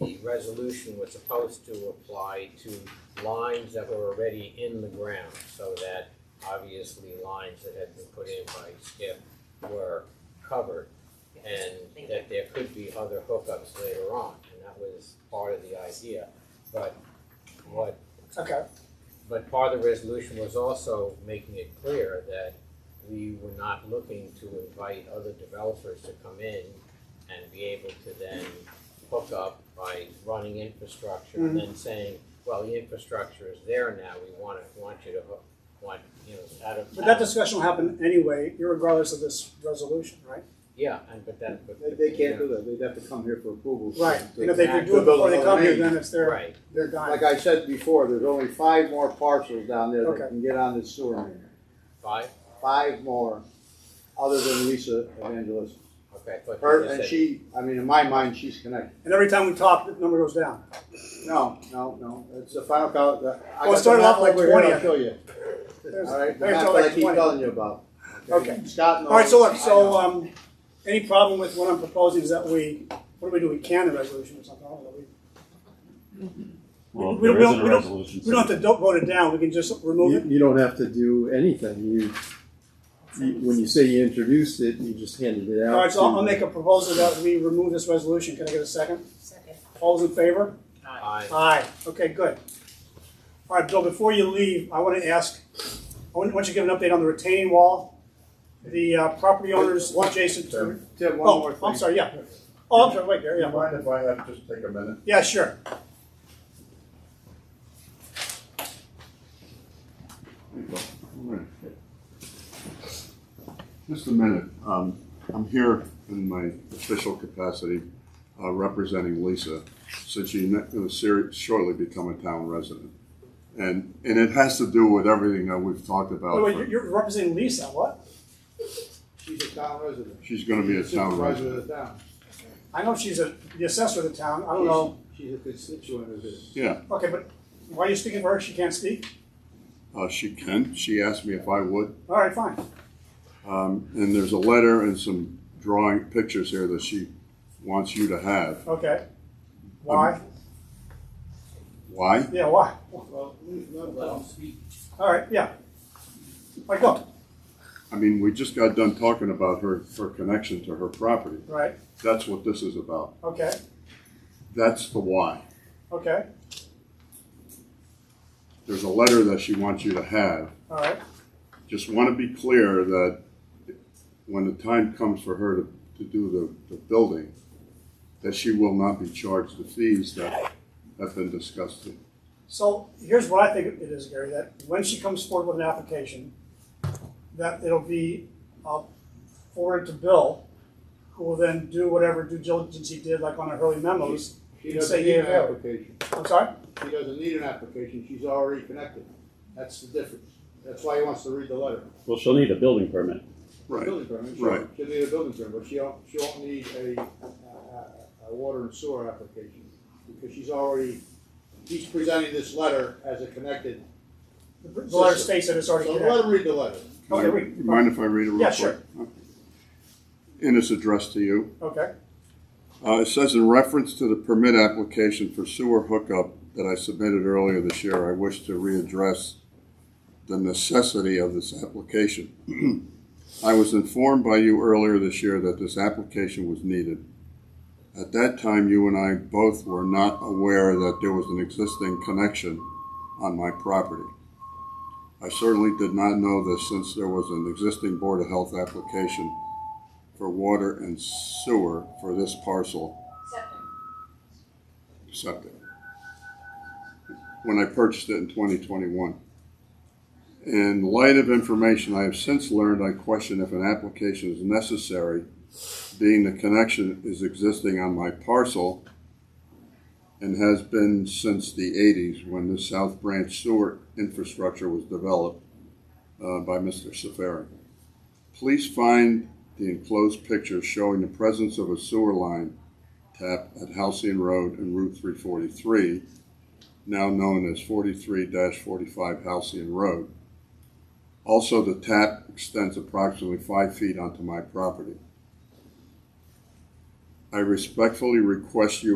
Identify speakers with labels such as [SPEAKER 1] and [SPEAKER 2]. [SPEAKER 1] the resolution was supposed to apply to lines that were already in the ground, so that obviously lines that had been put in by Skip were covered, and that there could be other hookups later on, and that was part of the idea. But what
[SPEAKER 2] Okay,
[SPEAKER 1] but part of the resolution was also making it clear that we were not looking to invite other developers to come in and be able to then hook up by running infrastructure
[SPEAKER 3] Mm-hmm.
[SPEAKER 1] and then saying, well, the infrastructure is there now, we wanna, want you to hook, want, you know, out of.
[SPEAKER 2] but that discussion will happen anyway, irregardless of this resolution, right?
[SPEAKER 1] Yeah, and but that, but.
[SPEAKER 3] They, they can't do that, they'd have to come here for approval.
[SPEAKER 2] Right,
[SPEAKER 3] To-
[SPEAKER 2] and if they could do it before they come here, then it's their,
[SPEAKER 1] Right,
[SPEAKER 2] their dime.
[SPEAKER 3] Like I said before, there's only five more parcels down there
[SPEAKER 2] Okay.
[SPEAKER 3] that can get on this sewer main,
[SPEAKER 1] five,
[SPEAKER 3] five more, other than Lisa Evangelist.
[SPEAKER 1] okay, but.
[SPEAKER 3] Her,
[SPEAKER 1] you
[SPEAKER 3] and
[SPEAKER 1] said-
[SPEAKER 3] she, I mean, in my mind, she's connected.
[SPEAKER 2] And every time we talk, the number goes down.
[SPEAKER 3] No, no, no, it's the final count, the-
[SPEAKER 2] Well, it
[SPEAKER 3] I got the
[SPEAKER 2] started
[SPEAKER 3] map
[SPEAKER 2] off like
[SPEAKER 3] over here,
[SPEAKER 2] 20.
[SPEAKER 3] I'll show you,
[SPEAKER 2] There's-
[SPEAKER 3] alright, the
[SPEAKER 2] there's
[SPEAKER 3] map
[SPEAKER 2] all
[SPEAKER 3] that I
[SPEAKER 2] like
[SPEAKER 3] keep
[SPEAKER 2] 20.
[SPEAKER 3] telling you about.
[SPEAKER 2] Okay.
[SPEAKER 3] Scott knows.
[SPEAKER 2] All right, so
[SPEAKER 3] Oh, I
[SPEAKER 2] look,
[SPEAKER 3] know.
[SPEAKER 2] so, um, any problem with what I'm proposing is that we, what do we do, we can the resolution or something, I don't know, we,
[SPEAKER 4] Well,
[SPEAKER 2] We- we
[SPEAKER 4] there
[SPEAKER 2] don't-
[SPEAKER 4] isn't a
[SPEAKER 2] we don't-
[SPEAKER 4] resolution.
[SPEAKER 2] we don't have to do- vote it down, we can just remove
[SPEAKER 5] You,
[SPEAKER 2] it.
[SPEAKER 5] you don't have to do anything. You, you, when you say you introduced it, you just handed it out.
[SPEAKER 2] All right, so I'll,
[SPEAKER 5] to-
[SPEAKER 2] I'll make a proposal that we remove this resolution, can I get a second?
[SPEAKER 6] Second.
[SPEAKER 2] All those in favor?
[SPEAKER 1] I,
[SPEAKER 2] Aye, okay, good. All right, Bill, before you leave, I want to ask, I want want you to give an update on the retaining wall, the uh, property owners
[SPEAKER 3] What?
[SPEAKER 2] adjacent to.
[SPEAKER 3] Tim, one more
[SPEAKER 2] Oh,
[SPEAKER 3] thing.
[SPEAKER 2] I'm sorry, yeah. Oh, I'm sorry, wait, there,
[SPEAKER 7] Do you
[SPEAKER 2] yeah.
[SPEAKER 7] mind if I have just take a minute?
[SPEAKER 2] Yeah, sure.
[SPEAKER 7] Just a minute. Um, I'm here in my official capacity, uh, representing Lisa, since she ne- will seri- shortly become a town resident. And, and it has to do with everything that we've talked
[SPEAKER 3] Oh,
[SPEAKER 7] about.
[SPEAKER 2] Wait, wait, you're-
[SPEAKER 7] for-
[SPEAKER 2] you're representing Lisa, what?
[SPEAKER 3] She's a town resident.
[SPEAKER 7] She's gonna be a town
[SPEAKER 3] Supervisor
[SPEAKER 7] resident.
[SPEAKER 3] of the town.
[SPEAKER 2] I know she's a, the assessor of the town, I don't know,
[SPEAKER 3] She's a constituent of this.
[SPEAKER 7] Yeah,
[SPEAKER 2] okay, but why are you speaking for her, she can't speak?
[SPEAKER 7] uh, she can. She asked me if I would.
[SPEAKER 2] All right, fine,
[SPEAKER 7] Um, and there's a letter and some drawing, pictures here that she wants you to have.
[SPEAKER 2] okay.
[SPEAKER 3] Um,
[SPEAKER 2] Why?
[SPEAKER 7] Why?
[SPEAKER 2] Yeah, why?
[SPEAKER 3] Well, no, well,
[SPEAKER 2] All right, yeah. All right, go,
[SPEAKER 7] I mean, we just got done talking about her, her connection to her property.
[SPEAKER 2] right,
[SPEAKER 7] That's what this is about.
[SPEAKER 2] okay,
[SPEAKER 7] That's the why.
[SPEAKER 2] okay,
[SPEAKER 7] There's a letter that she wants you to have.
[SPEAKER 2] all right,
[SPEAKER 7] Just want to be clear that when the time comes for her to, to do the, the building, that she will not be charged the fees that have been discussed.
[SPEAKER 2] So here's what I think it is, Gary, that when she comes forward with an application, that it'll be uh, forwarded to Bill, who will then do whatever due diligence he did, like on the early memos.
[SPEAKER 3] She
[SPEAKER 2] You
[SPEAKER 3] doesn't
[SPEAKER 2] say
[SPEAKER 3] need
[SPEAKER 2] you
[SPEAKER 3] an
[SPEAKER 2] have.
[SPEAKER 3] application.
[SPEAKER 2] I'm sorry?
[SPEAKER 3] She doesn't need an application, she's already connected. That's the difference. That's why he wants to read the letter.
[SPEAKER 8] Well, she'll need a building permit.
[SPEAKER 7] Right.
[SPEAKER 3] Building permit,
[SPEAKER 7] right.
[SPEAKER 3] sure. She'll need a building permit, but she don't, she won't need a, a, a, a water and sewer application. Because she's already, he's presenting this letter as a connected.
[SPEAKER 2] The the letter states that it's already
[SPEAKER 3] So let
[SPEAKER 2] connected.
[SPEAKER 3] him read the letter.
[SPEAKER 2] Okay, read.
[SPEAKER 7] Mind if I read it real
[SPEAKER 2] Yeah,
[SPEAKER 7] quick?
[SPEAKER 2] sure.
[SPEAKER 7] And it's addressed to you.
[SPEAKER 2] Okay,
[SPEAKER 7] Uh, it says in reference to the permit application for sewer hookup that I submitted earlier this year, I wish to readdress the necessity of this application. I was informed by you earlier this year that this application was needed. At that time, you and I both were not aware that there was an existing connection on my property. I certainly did not know this since there was an existing Board of Health application for water and sewer for this parcel
[SPEAKER 6] Second.
[SPEAKER 7] septic when I purchased it in 2021. In light of information I have since learned, I question if an application is necessary, being the connection is existing on my parcel and has been since the 80s when the South Branch sewer infrastructure was developed uh, by Mr. Safari. Please find the enclosed picture showing the presence of a sewer line tap at Halcyon Road and Route 343, now known as 43-45 Halcyon Road. Also, the tap extends approximately five feet onto my property. I respectfully request you